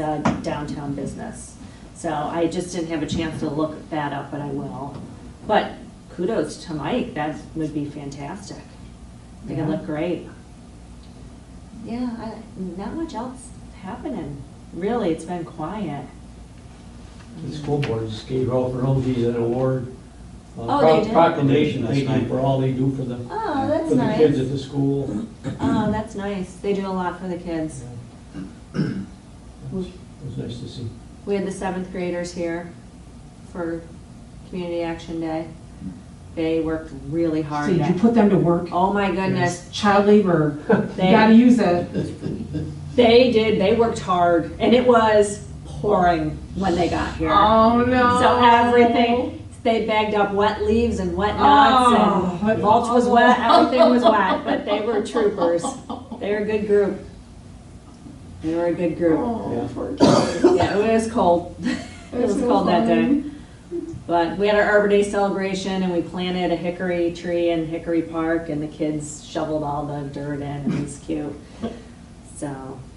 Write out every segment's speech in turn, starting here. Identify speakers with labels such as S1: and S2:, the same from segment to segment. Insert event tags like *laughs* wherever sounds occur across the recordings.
S1: uh, downtown business. So I just didn't have a chance to look that up, but I will. But kudos to Mike, that would be fantastic. They can
S2: Yeah.
S1: look great. Yeah, I- not much else happening, really, it's been quiet.
S3: The school board just gave out for Humvees an award. uh,
S1: Oh, they
S3: pro-
S1: did?
S3: Proclamation, they
S4: That's
S3: do for all they do for the,
S1: Oh,
S3: for
S1: that's
S3: the kids at
S1: nice.
S3: the school.
S1: Oh, that's nice, they do a lot for the kids. Mm-hmm.
S3: It was nice to see.
S1: We had the seventh graders here for Community Action Day. They worked really hard.
S2: See, you
S1: at-
S2: put them to work.
S1: Oh, my goodness,
S2: Child labor, you
S1: They-
S2: gotta use it.
S1: They did. They worked hard, and it was pouring when they got here.
S2: Oh, no.
S1: So everything they bagged up wet leaves and wet nuts,
S2: Oh,
S1: and
S2: but-
S1: mulch was wet. Everything was wet, but they were troopers. They were a good group. They were a good group.
S3: Yeah.
S2: Oh, poor kids.
S1: Yeah, it was cold. *laughs* it was
S2: That's so
S1: cold that day.
S2: funny.
S1: But we had our Arbor Day celebration and we planted a hickory tree in Hickory Park and the kids shoveled all the dirt in and it was cute. So,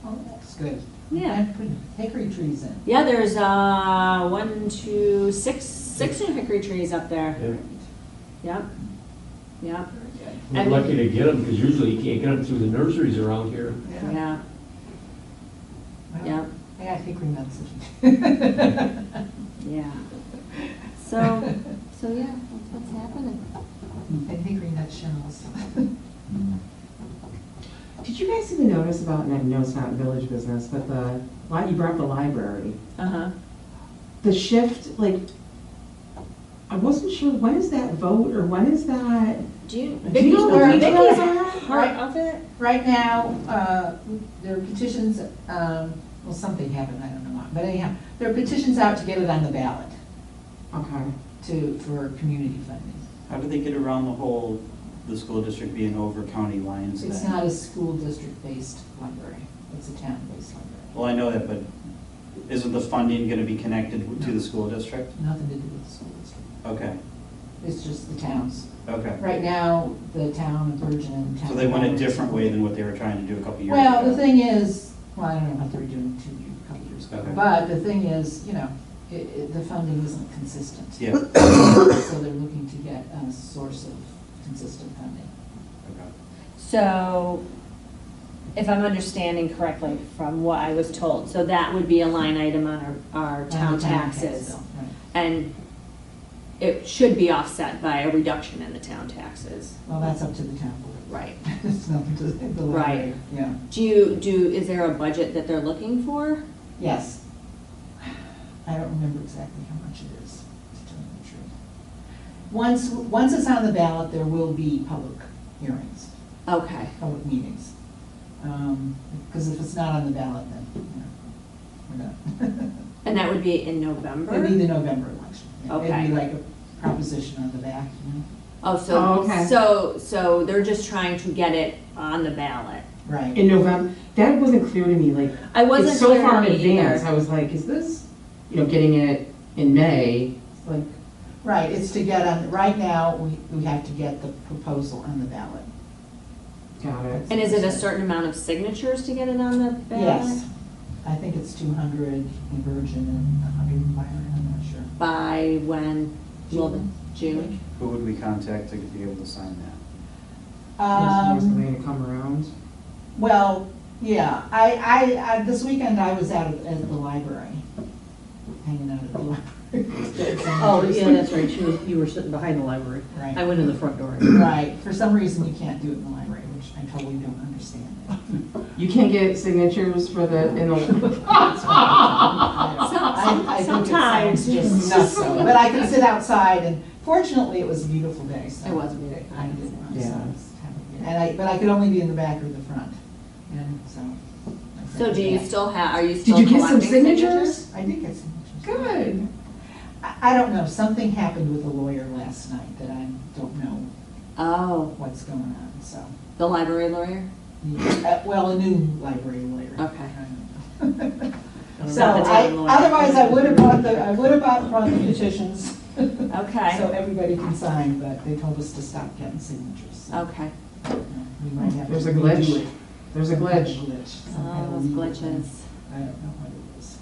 S5: Oh, that's good.
S1: yeah.
S5: And put hickory trees in.
S1: Yeah, there's uh, one, two, six, six new hickory trees up there.
S3: Yeah.
S1: Yep. Yep.
S3: We're
S1: And-
S3: lucky to get them, because usually you can't get them through the nurseries around here.
S1: Yeah.
S5: Wow.
S1: Yep.
S5: I got hickory nuts. *laughs* in.
S1: Yeah. So, so yeah, that's what's happening.
S5: And hickory nut shells. *laughs*
S2: Did you guys even notice about, and I know it's not village business, but the, why you brought up the library?
S1: Uh huh.
S2: The shift, like, I wasn't sure, when is that vote or when is that?
S1: Do you?
S2: Do you know where
S5: Vicky's
S2: those are?
S1: Part of it?
S5: Right now, uh, there are petitions, um, well, something happened, I don't know why, but anyhow, there are petitions out to get it on the ballot
S2: Okay.
S5: to, for community funding.
S4: How do they get around the whole, the school district being over county lines
S5: It's
S4: then?
S5: not a school district-based library, it's a town-based library.
S4: Well, I know that, but isn't the funding gonna be connected to the school district?
S5: Nothing to do with the school district,
S4: Okay,
S5: it's just the towns.
S4: okay.
S5: Right now, the town of Virgin.
S4: So they went a different way than what they were trying to do a couple years ago.
S5: Well, the thing is, well, I don't know what they were doing two, years- a couple years ago,
S4: Okay.
S5: but the thing is, you know, it, it, the funding isn't consistent.
S4: Yeah, okay.
S5: *coughs* So they're looking to get a source of consistent funding.
S1: So, if I'm understanding correctly from what I was told, so that would be a line item on our, our town
S5: On the tax
S1: taxes.
S5: bill, right.
S1: And it should be offset by a reduction in the town taxes.
S5: Well, that's up to the town board.
S1: Right.
S5: *laughs* It's nothing to the
S1: Right.
S5: library, yeah.
S1: Do you, do, is there a budget that they're looking for?
S5: Yes. I don't remember exactly how much it is, to tell you the truth. Once, once it's on the ballot, there will be public hearings,
S1: Okay,
S5: public meetings. Um, Because if it's not on the ballot, then, you know, we're not. *laughs*
S1: and that would be in
S5: It'd be
S1: November?
S5: the November election. yeah.
S1: Okay.
S5: It'd be like a proposition on the back, you know?
S1: Oh,
S2: Oh,
S1: so,
S2: okay.
S1: so, so they're just trying to get it on the ballot.
S5: Right.
S2: In November, that wasn't clear to me, like,
S1: I wasn't
S2: it's so
S1: clear
S2: far
S1: on
S2: in
S1: it
S2: advance,
S1: either.
S2: I was like, is this, you know, getting it in May? It's Like,
S5: Right, it's to get on, right now, we, we have to get the proposal on the ballot.
S2: got it.
S1: And is it a certain amount of signatures to get it on the ballot?
S5: Yes. I think it's two hundred in Virgin and hundred in Byron, I'm not sure.
S1: By when? Will the- June?
S4: Who would we contact to be able to sign that?
S2: Is there
S5: Um,
S2: something to come around?
S5: well, yeah, I, I, I, this weekend I was out at at the library, hanging out at the *laughs* library.
S6: Oh, yeah, that's right, she was, you were sitting behind the library.
S5: Right.
S6: I went in the front door.
S5: Right, for some reason you can't do it in the library, which I totally
S1: *laughs*
S5: don't understand.
S2: You can't get signatures for the, in the,
S5: *laughs* I- I think it sounds just nuts, though. But I can sit outside and fortunately, it was a beautiful day, so.
S1: It was really
S5: I didn't mind, so
S2: Yeah.
S5: I was happy. And I, but I could only be in the back or the front, and so. I
S1: So do you
S5: did
S1: still have, are you
S2: did
S1: still
S2: you get some
S1: collecting
S2: signatures?
S5: that. I did get some pictures.
S2: Good.
S5: I, I don't know, something happened with the lawyer last night that I don't know
S1: Oh,
S5: what's going on, so.
S1: the library lawyer?
S5: Uh, Well, a new library lawyer.
S1: Okay.
S5: I don't know. So
S1: Not the
S5: I,
S1: town lawyer.
S5: otherwise I would have brought the, I would have bought- brought the petitions.
S1: Okay.
S5: *laughs* So everybody can sign, but they told us to stop getting signatures. so,
S1: Okay.
S5: you know, We might have to
S2: There's a
S5: redo
S2: glitch.
S5: it.
S2: There's a
S5: Some kind of
S2: glitch.
S5: glitch, some kind
S1: Oh,
S5: of
S1: those
S5: legal thing.
S1: glitches.
S5: I don't know what it was.